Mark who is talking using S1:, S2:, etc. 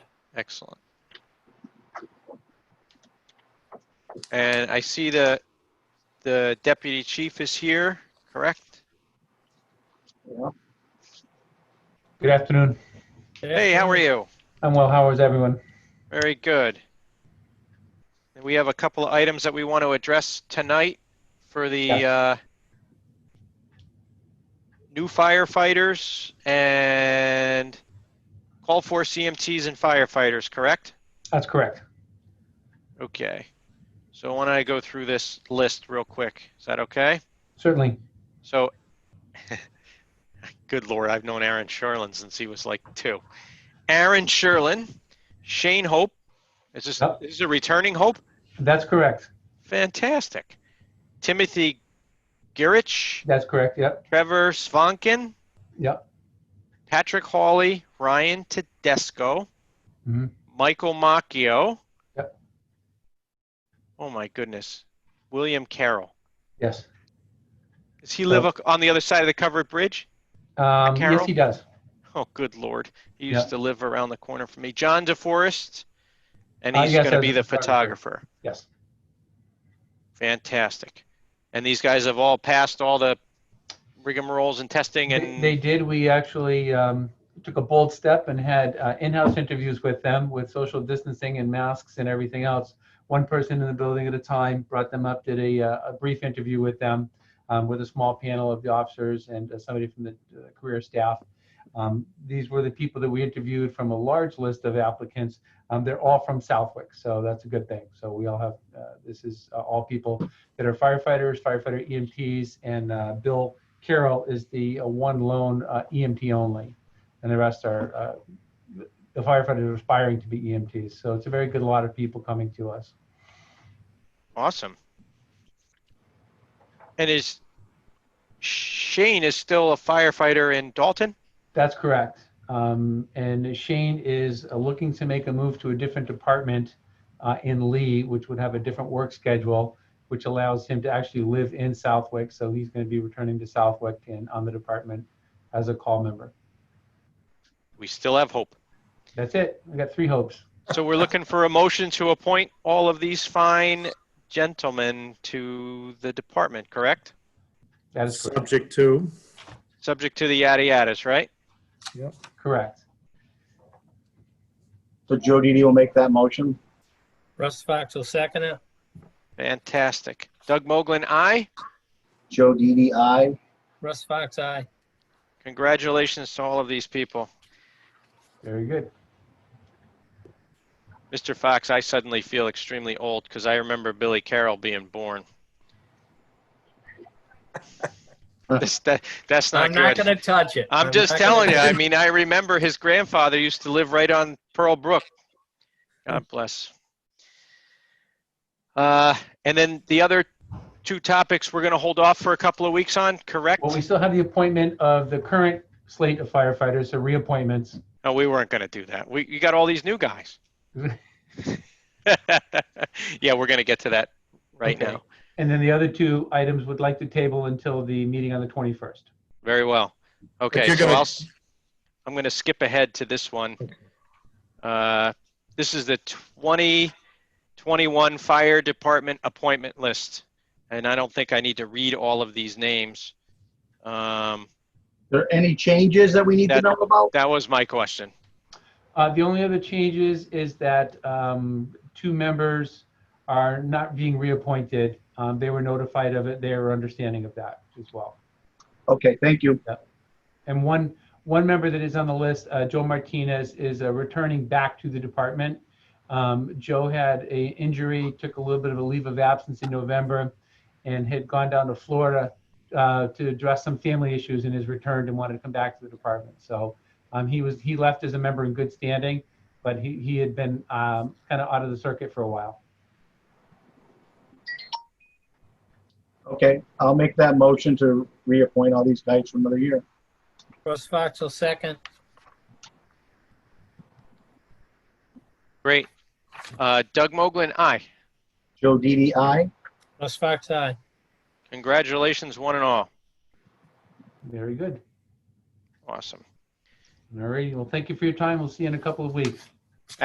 S1: Excellent. And I see the, the deputy chief is here, correct?
S2: Good afternoon.
S1: Hey, how are you?
S2: I'm well. How is everyone?
S1: Very good. And We have a couple of items that we want to address tonight for the
S2: Yes.
S1: uh, new firefighters and call for CMTs and firefighters, correct?
S2: That's correct.
S1: Okay. So why don't I go through this list real quick? Is that okay?
S2: Certainly.
S1: So, good lord, I've known Aaron Sherlin since he was like two. Aaron Sherlin, Shane Hope. Is this,
S2: Yep.
S1: is this a returning Hope?
S2: That's correct.
S1: Fantastic. Timothy Gerich,
S2: That's correct. Yep.
S1: Trevor Svankin,
S2: Yep.
S1: Patrick Hawley, Ryan Tedesco,
S2: Mhm.
S1: Michael Macchio.
S2: Yep.
S1: Oh my goodness. William Carroll.
S2: Yes.
S1: Does he live ac- on the other side of the covered bridge?
S2: Um,
S1: Carol?
S2: yes, he does.
S1: Oh, good lord. He
S2: Yeah.
S1: used to live around the corner from me. John DeForest, and
S2: Uh,
S1: he's
S2: yes,
S1: going to
S2: as
S1: be
S2: a
S1: the
S2: photographer.
S1: photographer.
S2: Yes.
S1: Fantastic. And these guys have all passed all the rigmaroles and testing
S2: They,
S1: and
S2: they did. We actually um, took a bold step and had uh, in-house interviews with them with social distancing and masks and everything else. One person in the building at a time brought them up, did a, uh, a brief interview with them um, with a small panel of the officers and uh, somebody from the uh, career staff. Um, these were the people that we interviewed from a large list of applicants. Um, they're all from Southwick, so that's a good thing. So we all have, uh, this is uh, all people that are firefighters, firefighter EMTs, and uh, Bill Carroll is the uh, one lone uh, EMT only, and the rest are uh, the firefighters aspiring to be EMTs. So it's a very good lot of people coming to us.
S1: awesome. And is Shane is still a firefighter in Dalton?
S2: That's correct. Um, and Shane is uh, looking to make a move to a different department uh, in Lee, which would have a different work schedule, which allows him to actually live in Southwick. So he's going to be returning to Southwick and on the department as a call member.
S1: We still have hope.
S2: That's it. We got three hopes.
S1: So we're looking for a motion to appoint all of these fine gentlemen to the department, correct?
S2: That is correct.
S3: Subject to,
S1: Subject to the yada yadas, right?
S2: correct.
S4: So Joe Didi will make that motion.
S5: Russ Fox will second it.
S1: Fantastic. Doug Moglen, aye.
S4: Joe Didi, aye.
S5: Russ Fox, aye.
S1: Congratulations to all of these people.
S2: Very good.
S1: Mr. Fox, I suddenly feel extremely old because I remember Billy Carroll being born. This- that- that's not
S5: I'm not
S1: good.
S5: gonna touch it.
S1: I'm just
S5: not gonna
S1: telling you.
S5: touch
S1: I
S5: it.
S1: mean, I remember his grandfather used to live right on Pearl Brook. God bless. Uh, and then the other two topics we're going to hold off for a couple of weeks on, correct?
S2: Well, we still have the appointment of the current slate of firefighters, so reappointments.
S1: No, we weren't going to do that. We, you got all these new guys. yeah, we're going to get to that right
S2: Okay.
S1: now.
S2: And then the other two items would like to table until the meeting on the 21st.
S1: Very well. Okay,
S3: you're
S1: so
S3: gonna-
S1: I'll, s- I'm going to skip ahead to this one. Uh, This is the 2021 Fire Department appointment list. And I don't think I need to read all of these names. Um,
S4: There any changes that we need to
S1: That-
S4: know about?
S1: That was my question.
S2: Uh, The only other changes is that um, two members are not being reappointed. Um, They were notified of it, they are understanding of that as well.
S4: Okay, thank you.
S2: And one, one member that is on the list, uh, Joe Martinez, is uh, returning back to the department. Um, Joe had a injury, took a little bit of a leave of absence in November, and had gone down to Florida uh, to address some family issues and has returned and wanted to come back to the department. So um, he was, he left as a member in good standing, but he, he had been um, kind of out of the circuit for a while.
S4: Okay, I'll make that motion to reappoint all these guys for another year.
S5: Russ Fox will second.
S1: Great. Uh, Doug Moglen, aye.
S4: Joe Didi, aye.
S5: Russ Fox, aye.
S1: Congratulations, one and all.
S2: Very good.
S1: Awesome.
S2: All right, well, thank you for your time. We'll see you in a couple of weeks.